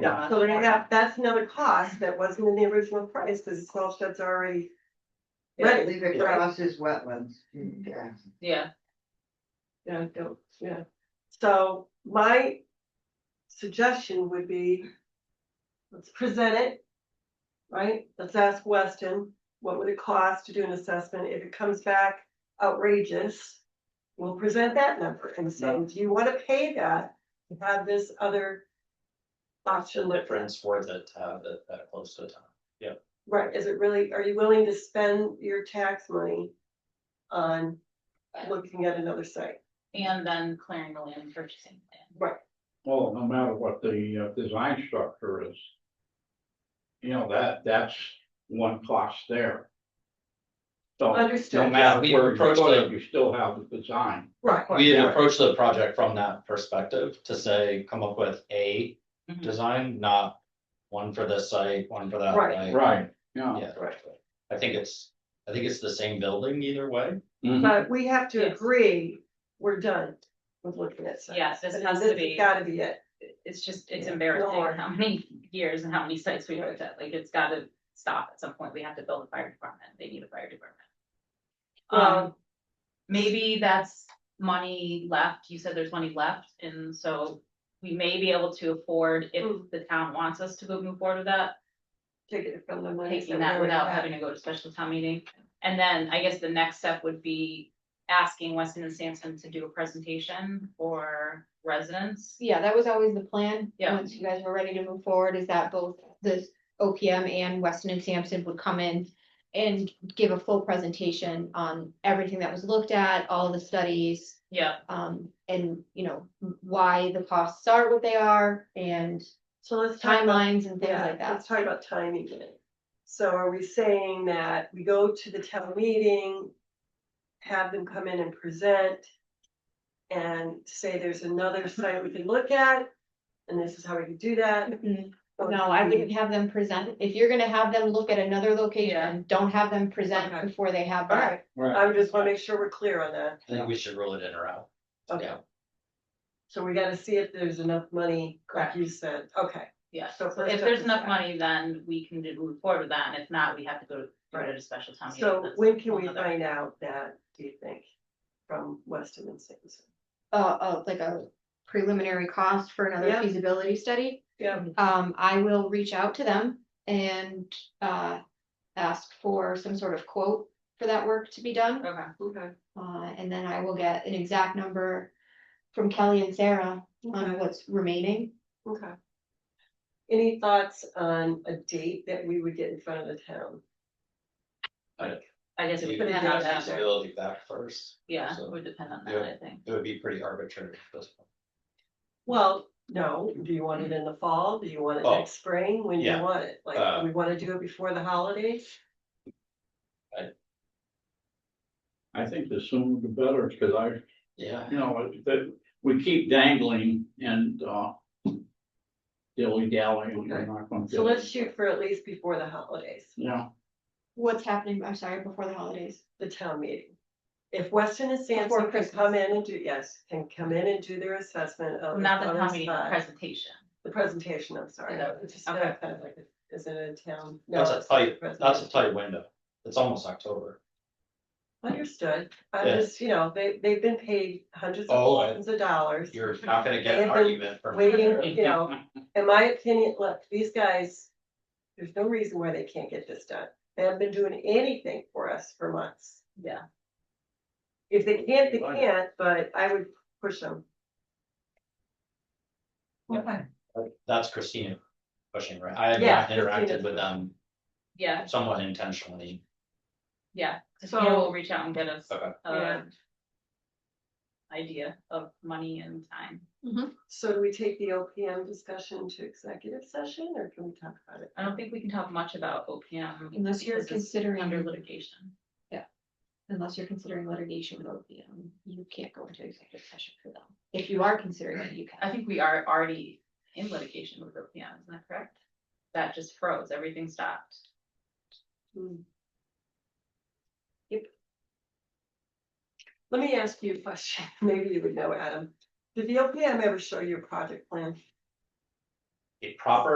Yeah. So we're gonna have, that's another cost that wasn't in the original price, because salt sheds are already. I Right, believe it crosses wetlands. Yeah. yeah, yeah, don't, yeah. So my suggestion would be, let's present it. Right, let's ask Weston, what would it cost to do an assessment? If it comes back outrageous. We'll present that number and say, do you wanna pay that to have this other option that Difference worth it to have that, that uh, close to time. Right, is it really, are you willing to spend your tax money on looking at another site? and then clearing the land and purchasing land. Right, Well, no matter what the uh, design structure is. You know, that, that's one cost there. So no understood, matter We where you approached put it. it, you still have the design. right, We had right. approached the project from that perspective to say, come up with a Mm-hmm. Mhm. design, not one for this site, one for that. Right. site. Right. Yeah. Yeah, Right. I think it's, I think it's the same building either way. Mhm. But we have to Yes. agree, we're done with looking at sites. Yes, this And has to be- Gotta be it, It's just, it's Yeah. embarrassing Lord. how many years and how many sites we looked at, like, it's gotta stop at some point, we have to build a fire department, they need a fire department. Um, Well- maybe that's money left, you said there's money left, and so we may be able to afford, if Mm. the town wants us to go move forward with that, take it from the money. taking that without having to go to special town meeting. And then I guess the next step would be asking Weston and Sampson to do a presentation for residents. Yeah, that was always the plan. Yeah. Once you guys were ready to move forward, is that both the OPM and Weston and Sampson would come in and give a full presentation on everything that was looked at, all the studies, Yeah, um, and, you know, why the costs are what they are and So let's talk about timelines and things Yeah, like that. Let's talk about timing then. So are we saying that we go to the town meeting, have them come in and present? And say there's another Mm-hmm. site we can look at, and this is how we can do that? Mm, No, I wouldn't have them present. If you're gonna have them look at another Yeah. location, don't have them present Okay. before they have All that. right, Right. I would just wanna make sure we're clear on that. I think we should rule it in or out. Okay, Yeah. so we gotta see if there's enough money, like you said, okay. yeah. So So if there's enough money, then we can do- move forward with that, and if not, we have to go to, go to a special town meeting. So That's when can we another- find out that, do you think, from Weston and Sampson? Uh, uh, like a preliminary cost for another Yeah. feasibility study. Yeah. um, I will reach out to them and, uh, ask for some sort of quote for that work to be done. Okay, Okay. Uh, and then I will get an exact number from Kelly and Sarah Okay. on what's remaining. Okay. Any thoughts on a date that we would get in front of the town? I guess it would You put it depend down on have as that, feasibility back first. yeah, it So would depend on Yeah. that, I think. It would be pretty arbitrary at this point. Well, no, do you want it in the fall? Do you want it Oh, next spring? When do you yeah. want it? Like, Uh, do we wanna do it before the holidays? I think the sooner the better, because I, Yeah. you know, that, we keep dangling and, uh. Dilly dallying, we're not gonna. So get it. let's shoot for at least before the holidays, Yeah, What's happening, I'm sorry, before the holidays. the town meeting. If Weston and Before Sampson can Christmas. come in and do, yes, can come in and do their assessment of. Not the other town meeting, the side- presentation. The presentation, I'm sorry. Yeah. It's just not Okay. kind of like a- Is it a town? No, That's a it's not tight- That's a presentation. tight window. It's almost October. Understood, I Yeah. just, you know, they, they've been paid hundreds of Oh, I- thousands of dollars. You're not gonna get Mm-hmm. an And then argument from. Waiting, you know, in my opinion, look, these guys, there's no reason why they can't get this done. They haven't been doing anything for us for months. Yeah. If they can't, they can't, but I would push them. Okay. That's Christina pushing, right? I have Yeah, not interacted Christina's with them Yeah, somewhat intentionally. yeah, so So- we'll reach out and get us Okay. a idea of money and time. So do we take the OPM discussion to executive session or can we talk about it? I don't think we can talk much about OPM. Unless you're because it's considering- Under litigation. Unless you're considering litigation with OPM, you can't go into executive session for them. If you are considering it, you I can. think we are already in litigation with OPM, isn't that correct? That just froze, everything stopped. Let me ask you a question, maybe you would know, Adam. Did the OPM ever show you a project plan? A proper